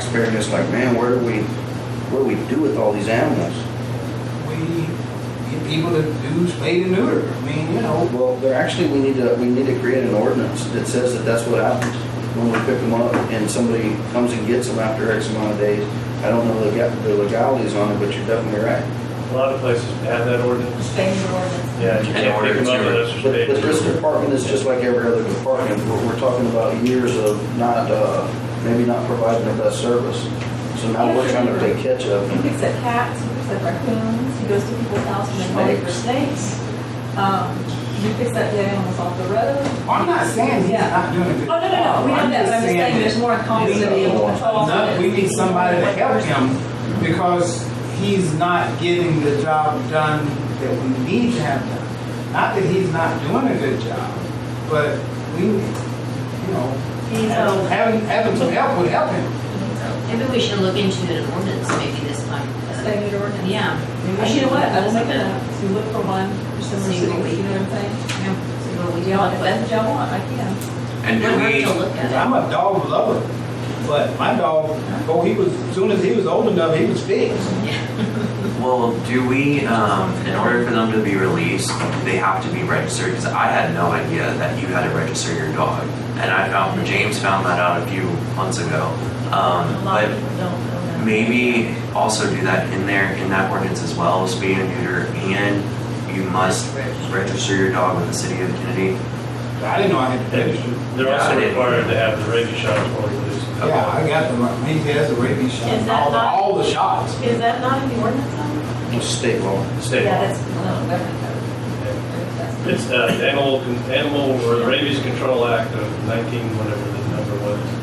scared us like, man, where do we, what do we do with all these animals? We get people to do spade and neuter. I mean, you know, Well, there actually, we need to, we need to create an ordinance that says that that's what happens when we pick them up and somebody comes and gets them after X amount of days. I don't know the lega- the legalities on it, but you're definitely right. A lot of places have that ordinance. State ordinance. Yeah, you In can't order pick them up to- unless they're But, spayed. but this department is just like every other department, we're, we're talking about years of not, uh, maybe not providing the best service. So now we're trying to play catch up. He picks up cats, he picks up raccoons, he goes to people's houses and calls for snakes. Um, He picks up dead animals off the road. I'm not saying he's not doing a Oh, good. no, no, no, we don't know, but I'm just saying there's more accountability and control. No, we need somebody to help him because he's not getting the job done that we need to have done. Not that he's not doing a good job, but we, you know, He's, having, um, having- having some help would help him. Maybe we should look into an ordinance maybe this time. state of ordinance. Yeah. And you know what, I will make a, so you look for one, for some See reason, what we- you know what I'm saying? Yeah. See what we do, if that's what y'all want, I can. And do We're we, gonna look at I'm a dog lover, but my dog, oh, he was, as soon as he was old enough, he was fixed. well, do we, um, in order for them to be released, do they have to be registered? Because I had no idea that you had to register your dog. And I found, James found that out a few months ago. Um, A lot of but people don't know that. maybe also do that in there, in that ordinance as well, spay and neuter, and you must register your dog with the city of Kennedy. I didn't know I had to register. They're Yeah, I also didn't- required to have the rabies shot before they release them. Yeah, I got the, he has the rabies shot, Is and that all, the- not- all the shots. Is that not in the ordinance though? It's state law. State Yeah, law. that's, no, that's. It's uh, the Animal, Animal or Rabies Control Act of 19, whatever the number was.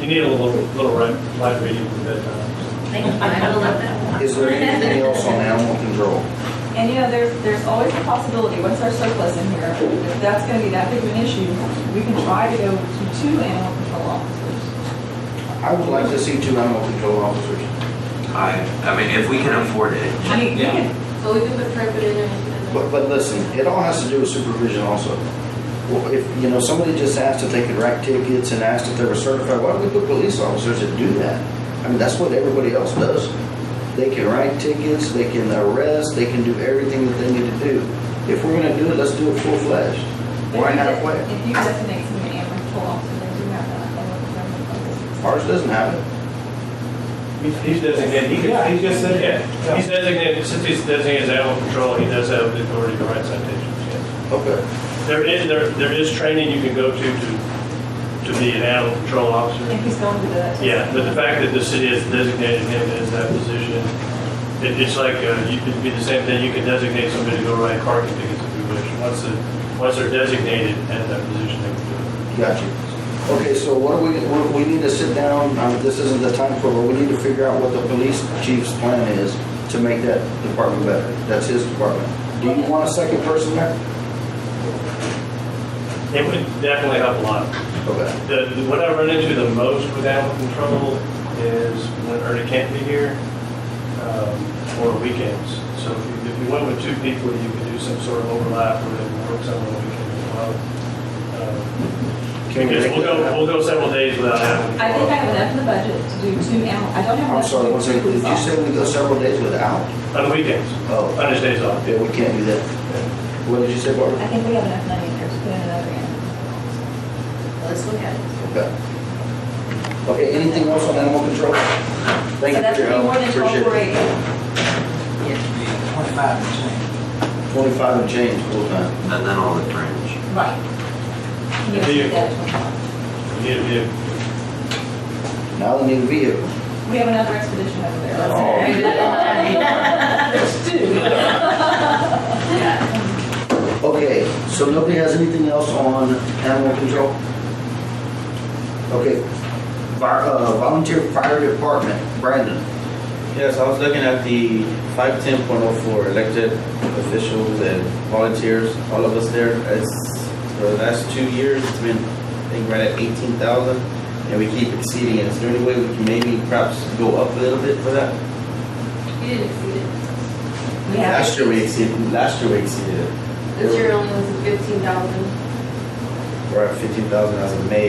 You need a little, little ri- light reading for uh, bedtime. Thank you, I will let that one. Is there anything else on animal control? And you know, there's, there's always a possibility, once our surplus in here, if that's gonna be that big of an issue, we can try to go to two animal control officers. I would like to see two animal control officers. I, I mean, if we can afford it, I mean, we Yeah. could- So we can put carpet in and. But, but listen, it all has to do with supervision also. Well, if, you know, somebody just asked if they could write tickets and asked if they were certified, why do we put police officers that do that? I mean, that's what everybody else does. They can write tickets, they can arrest, they can do everything that they need to do. If we're gonna do it, let's do it full-fledged. Why if you halfway? de- If you designate some animal control officers, they do have that. I don't remember. Ours doesn't have it. He's- He's designated, he just, he just said, yeah. He's designated, since he's designated as animal control, he does have the authority to write citations, yes. Okay. There is, there, there is training you can go to to, to be an animal control If officer. he's going to do that. Yeah, but the fact that the city has designated him as that position, it, it's like, uh, you could be the same thing, you can designate somebody to go write parking tickets if you wish. Once the, once they're designated at that position, they can do it. Got you. Okay, so what do we, what- we need to sit down, um, this isn't the time for, it, but we need to figure out what the police chief's plan is to make that department better. That's his department. Do you want a second person there? It would definitely help a lot. Okay. The, the- what I run into the most with animal control is when Ernie can't be here, um, or weekends. So if you- if you went with two people, you could do some sort of overlap where they can work some on the weekend as well. Um, Can we Because make we'll that go, happen? we'll go several days without animal I think I control. have enough in the budget to do two animal, I don't I'm have enough. sorry, one to do second, two did you police say we go several days without? On the weekends, Oh, on his days off. yeah, we can't do that. What did you say, officers. I Barbara? think we have enough money in there to put in another animal. Let's look at it. Okay. Okay, anything else on animal control? Thank So you that's for your gonna be help, more than appreciate it. incorporated. Twenty-five percent. Twenty-five and change full time. and then all the fringe. Right. Yeah, Yes, you- that- You need to Now they need a vehicle. We have another expedition over there. Let's- Oh. There's two. Okay, so nobody has anything else on animal control? Okay, Fire- uh, volunteer fire department, Brandon. Yes, I was looking at the five ten point oh four elected officials and volunteers, all of us there. It's, for the last two years, it's been, I think, right at eighteen thousand, and we keep exceeding it. Is there any way we can maybe perhaps go up a little bit for that? You didn't exceed it. We have. Last year we exceeded, last year we exceeded it. This year only was fifteen thousand. We're at fifteen thousand as of May,